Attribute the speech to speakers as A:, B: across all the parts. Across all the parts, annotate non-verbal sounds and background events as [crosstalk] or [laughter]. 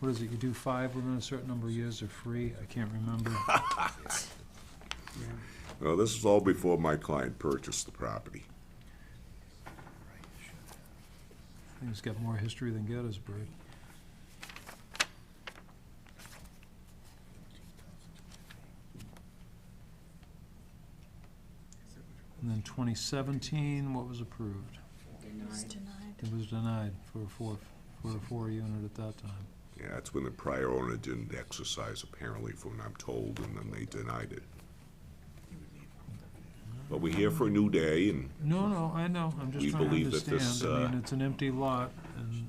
A: what is it, you do five within a certain number of years are free? I can't
B: [laughs]
A: remember.
C: No, this is all before my client purchased the property.
A: Things got more history than Gettysburg. And then twenty seventeen, what was approved?
D: It's denied.
A: It was denied for a four, for a four unit at that time.
C: Yeah, that's when the prior owner didn't exercise apparently, from what I'm told, and then they denied it. But we're here for a new day, and
A: No, no, I know, I'm just
C: We
A: trying to
C: believe that
A: understand.
C: this,
A: I
C: uh,
A: mean, it's an empty lot, and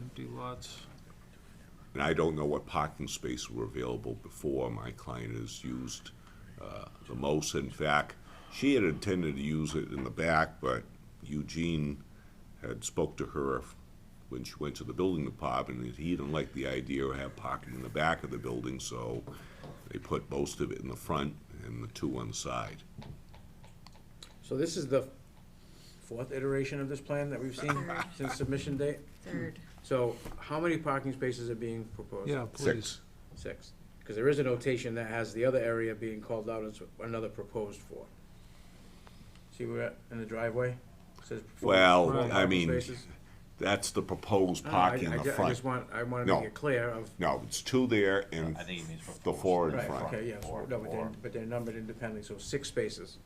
A: empty lots,
C: and I don't know what parking spaces were available before my client has used uh, the most. In fact, she had intended to use it in the back, but Eugene had spoke to her when she went to the building department, and he didn't like the idea of have parking in the back of the building, so they put most of it in the front and the two on the side.
B: So this is the fourth iteration of this plan that we've seen since submission date?
D: Third.
B: So how many parking spaces are being proposed?
A: yeah,
C: Six.
A: please.
B: Six. Because there is a notation that has the other area being called out as another proposed for. See where, in the driveway? Says proposed
C: Well,
B: four
A: Right.
C: I
B: parking
C: mean,
B: spaces.
C: that's the proposed
B: No, no, I-
C: parking
B: I
C: in
B: ju-
C: the
B: I
C: front.
B: just want, I want to
C: No.
B: make it clear of,
C: No, it's two there and
E: I think it means
C: the four in
B: right,
C: front,
B: okay, yes, no,
E: Four,
B: but they're,
E: four.
B: but they're numbered independently, so six spaces.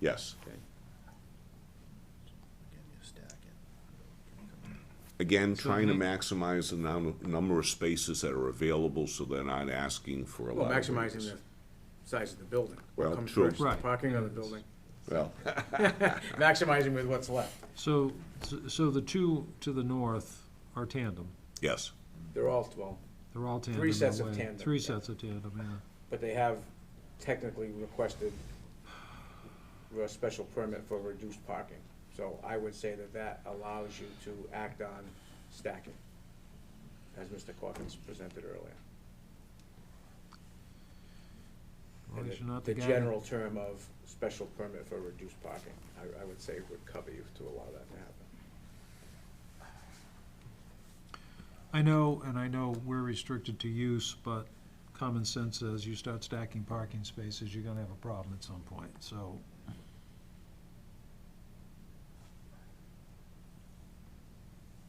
C: yes.
B: Okay.
C: Again, trying to maximize the num- number of spaces that are available, so they're not asking for a
B: Well,
C: lot of
B: maximizing
C: waivers.
B: the size of the building. What
C: Well,
B: comes
C: true.
B: first, the
A: Right.
B: Parking on the building,
C: Well,
B: maximizing with what's left.
A: So, so the two to the north are tandem,
C: yes,
B: They're all twelve,
A: they're all tandem.
B: Three
A: in a
B: sets of
A: way.
B: tandem,
A: Three
B: yeah.
A: sets of tandem, yeah.
B: but they have technically requested a special permit for reduced parking. So I would say that that allows you to act on stacking, as Mr. Corkins presented earlier.
A: As long
B: And
A: as
B: the-
A: you're not the guy.
B: The general term of special permit for reduced parking, I, I would say would cover you to allow that to happen.
A: I know, and I know we're restricted to use, but common sense says you start stacking parking spaces, you're gonna have a problem at some point, so.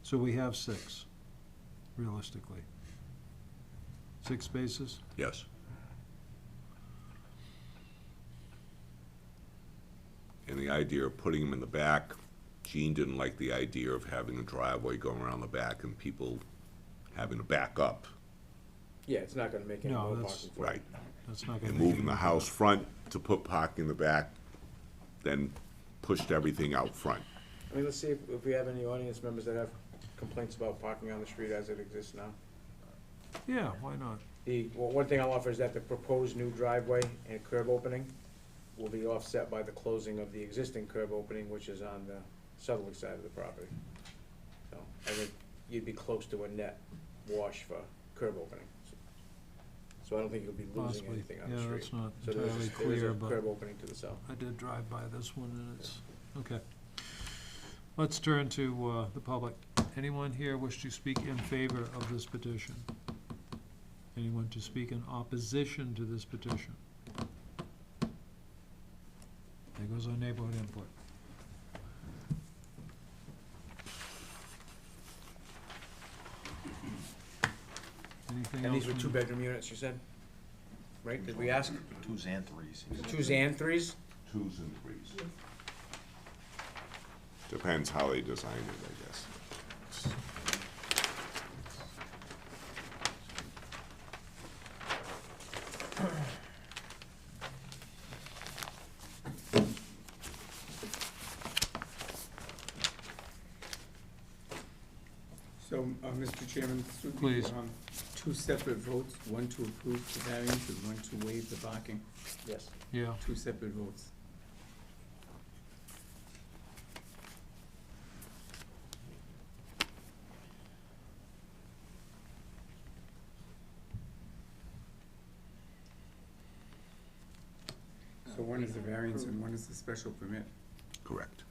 A: So we have six, realistically. Six spaces?
C: yes. And the idea of putting them in the back, Gene didn't like the idea of having a driveway going around the back and people having to back up,
B: Yeah, it's not gonna make any
A: No,
B: more
A: that's-
B: parking for you.
C: right?
A: That's not gonna
C: and
A: make
C: moving the house front to put parking in the back, then pushed everything out front.
B: I mean, let's see if, if we have any audience members that have complaints about parking on the street as it exists now.
A: it- Yeah, why not?
B: The, well, one thing I'll offer is that the proposed new driveway and curb opening will be offset by the closing of the existing curb opening, which is on the southerly side of the property. So, I think you'd be close to a net wash for curb opening. So I don't think you'll be losing
A: Possibly,
B: anything on the
A: yeah,
B: street.
A: that's not
B: So there's,
A: entirely
B: a- there's
A: clear,
B: a
A: but
B: curb opening to the south.
A: I did drive by this one and it's, okay. Let's turn to, uh, the public. Anyone here wish to speak in favor of this petition? Anyone to speak in opposition to this petition? There goes our neighborhood input. Anything
B: And
A: else?
B: these were
A: from-
B: two-bedroom units, you said? Right, did we ask?
E: Twos and threes.
B: Twos and threes?
C: Twos and threes. Depends how they design it, I guess.
F: So, uh, Mr. Chairman, through
A: Please.
F: the, um, two separate votes, one to approve the variance and one to waive the parking,
B: Yes.
A: Yeah,
F: two separate votes. So one is the variance and one is the special permit.
C: Correct.